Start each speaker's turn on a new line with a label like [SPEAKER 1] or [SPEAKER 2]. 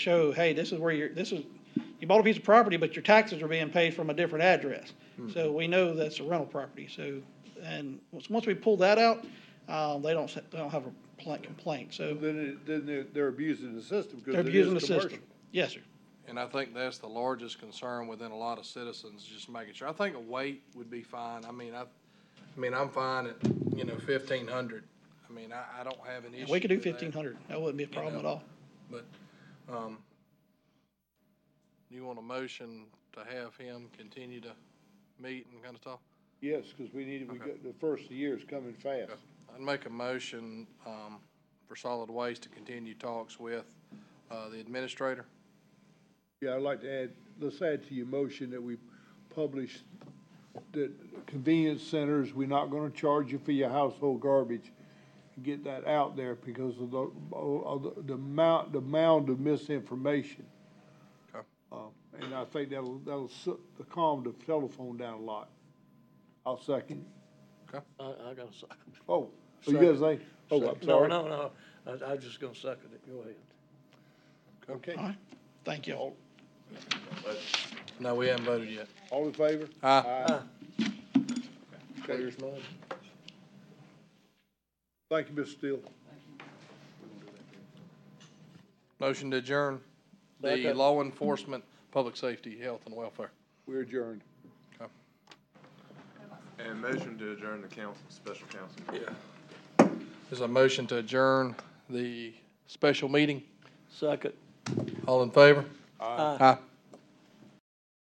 [SPEAKER 1] show, hey, this is where you're, this is, you bought a piece of property, but your taxes are being paid from a different address.
[SPEAKER 2] Hmm.
[SPEAKER 1] So we know that's a rental property, so, and once, once we pull that out, uh, they don't, s- they don't have a pla- complaint, so
[SPEAKER 2] Then, it- then they're, they're abusing the system because
[SPEAKER 1] they're
[SPEAKER 2] it is
[SPEAKER 1] abusing the system.
[SPEAKER 2] commercial.
[SPEAKER 1] Yes, sir.
[SPEAKER 3] And I think that's the largest concern within a lot of citizens, just making sure. I think a weight would be fine. I mean, I, I mean, I'm fine at, you know, fifteen hundred. I mean, I, I don't have an
[SPEAKER 1] And
[SPEAKER 3] issue
[SPEAKER 1] We could do
[SPEAKER 3] with that.
[SPEAKER 2] uh,
[SPEAKER 1] fifteen hundred, that wouldn't be a problem at all.
[SPEAKER 3] But, um, you want a motion to have him continue to meet and kind of talk?
[SPEAKER 2] Yes, because we need, we
[SPEAKER 3] Okay.
[SPEAKER 2] got, the first year is coming fast.
[SPEAKER 3] I'd make a motion, um, for solid waste to continue talks with, uh, the administrator.
[SPEAKER 2] Yeah, I'd like to add, let's add to your motion that we publish that convenience centers, we're not gonna charge you for your household garbage. Get that out there because of the, of the- the amount, the mound of misinformation.
[SPEAKER 3] Okay.
[SPEAKER 2] Uh, And I think that'll, that'll su- calm the telephone down a lot. I'll second.
[SPEAKER 4] I, I gotta suck.
[SPEAKER 2] Oh, oh, you guys say, oh, I'm sorry.
[SPEAKER 4] No, no, no, I, I just gonna suck at it, go ahead.
[SPEAKER 2] Okay,
[SPEAKER 1] All right, thank you.
[SPEAKER 3] No, we haven't voted yet.
[SPEAKER 2] all in favor?
[SPEAKER 3] Aye.
[SPEAKER 2] Okay. Thank you, Mr. Steele.
[SPEAKER 3] Motion to adjourn the
[SPEAKER 4] Second.
[SPEAKER 3] law enforcement, public safety, health and welfare.
[SPEAKER 2] We're adjourned.
[SPEAKER 5] And motion to adjourn the council, special council.
[SPEAKER 3] There's a motion to adjourn the special meeting.
[SPEAKER 4] Suck it.
[SPEAKER 3] All in favor?
[SPEAKER 4] Aye.
[SPEAKER 3] Aye.